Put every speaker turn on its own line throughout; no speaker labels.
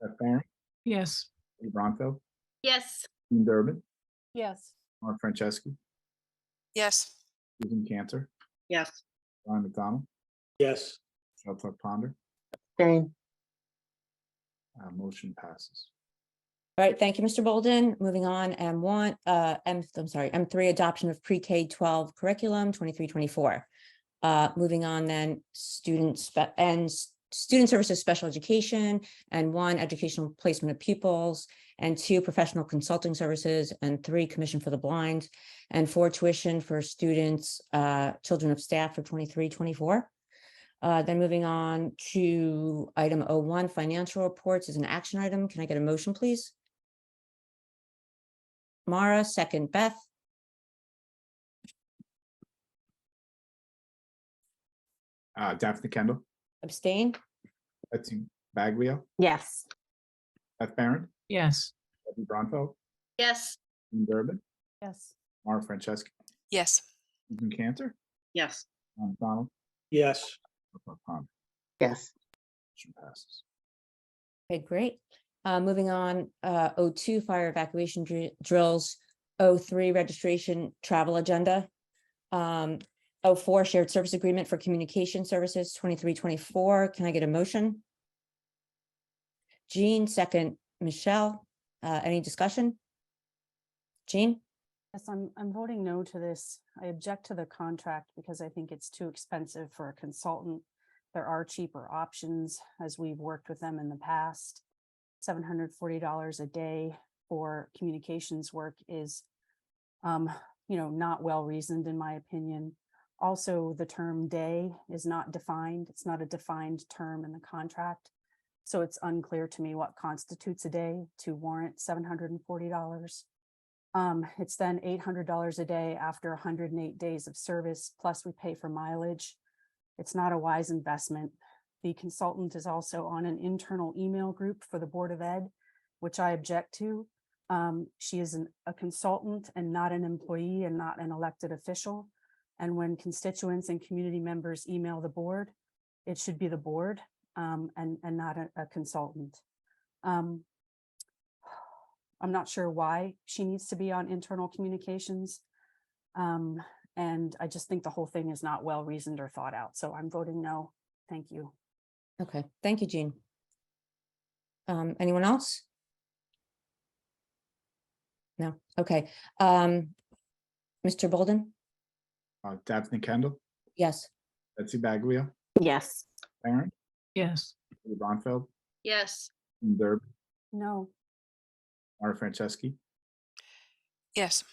Beth Barn,
Yes.
Lee Bronco,
Yes.
Dean Durbin,
Yes.
Mark Franceschi,
Yes.
Susan Cantor,
Yes.
Ryan McDonald,
yes,
Shel Tuck Ponder,
Same.
uh, motion passes.
All right, thank you, Mr. Bolden. Moving on, M one, uh, M, I'm sorry, M three, adoption of pre-K twelve curriculum, twenty-three, twenty-four. Uh, moving on then, students and s- student services, special education, and one, educational placement of pupils, and two, professional consulting services, and three, commission for the blind, and four, tuition for students, uh, children of staff for twenty-three, twenty-four. Uh, then moving on to item O one, financial reports is an action item. Can I get a motion, please? Mara, second Beth.
Uh, Daphne Kendall,
Abstain?
Betsy Baglio,
Yes.
Beth Baron,
Yes.
Debbie Bronco,
Yes.
Dean Durbin,
Yes.
Mark Franceschi,
Yes.
Susan Cantor,
Yes.
Ryan McDonald,
yes,
Shel Tuck Ponder,
Yes.
motion passes.
Okay, great. Uh, moving on, uh, O two, fire evacuation dri- drills, O three, registration travel agenda. Um, O four, shared service agreement for communication services, twenty-three, twenty-four. Can I get a motion? Jean, second, Michelle, uh, any discussion? Jean,
Yes, I'm, I'm voting no to this. I object to the contract because I think it's too expensive for a consultant. There are cheaper options as we've worked with them in the past. Seven hundred forty dollars a day for communications work is um, you know, not well reasoned in my opinion. Also, the term day is not defined. It's not a defined term in the contract. So it's unclear to me what constitutes a day to warrant seven hundred and forty dollars. Um, it's then eight hundred dollars a day after hundred and eight days of service, plus we pay for mileage. It's not a wise investment. The consultant is also on an internal email group for the Board of Ed, which I object to. Um, she is an- a consultant and not an employee and not an elected official. And when constituents and community members email the board, it should be the board, um, and, and not a, a consultant. Um, I'm not sure why she needs to be on internal communications. Um, and I just think the whole thing is not well reasoned or thought out. So I'm voting no. Thank you.
okay, thank you, Jean. Um, anyone else? No, okay, um, Mr. Bolden,
Uh, Daphne Kendall,
yes.
Betsy Baglio,
Yes.
Baron,
Yes.
Lee Bronfeld,
Yes.
Dean Durbin,
No.
Mark Franceschi,
Yes.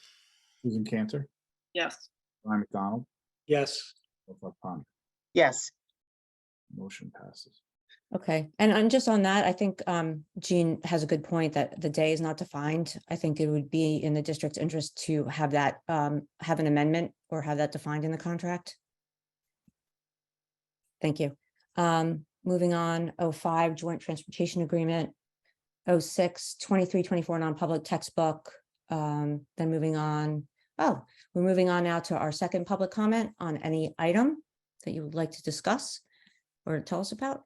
Susan Cantor,
Yes.
Ryan McDonald,
yes,
Shel Tuck Ponder,
Yes.
motion passes.
Okay, and and just on that, I think um Jean has a good point that the day is not defined. I think it would be in the district's interest to have that um have an amendment or have that defined in the contract. Thank you. Um, moving on, O five, joint transportation agreement. O six, twenty-three, twenty-four, non-public textbook. Um, then moving on, oh, we're moving on now to our second public comment on any item that you would like to discuss or tell us about.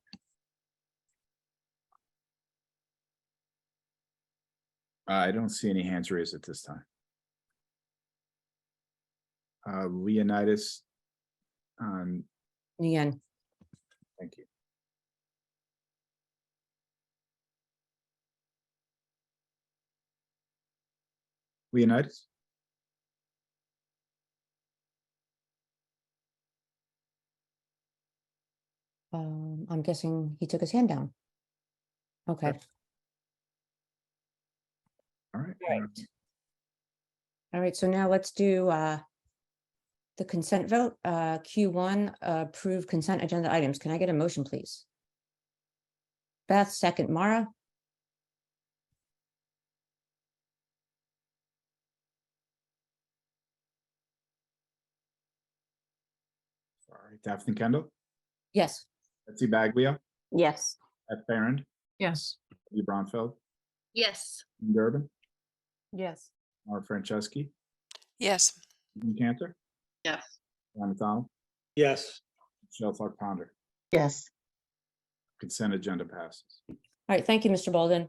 I don't see any hands raised at this time. Uh, Leonidas. Um,
Nguyen,
thank you. Leonidas,
um, I'm guessing he took his hand down. Okay,
all right.
Right. all right, so now let's do, uh, the consent vote, uh, Q one, approve consent agenda items. Can I get a motion, please? Beth, second, Mara,
Sorry, Daphne Kendall,
yes.
Betsy Baglia,
Yes.
Beth Baron,
Yes.
Lee Bronfeld,
Yes.
Dean Durbin,
Yes.
Laura Franceschi,
Yes.
Susan Cantor,
Yes.
Ryan McDonald,
yes.
Shel Tuck Ponder.
Yes.
Consent agenda passes.
right, thank you, Mr. Bolden.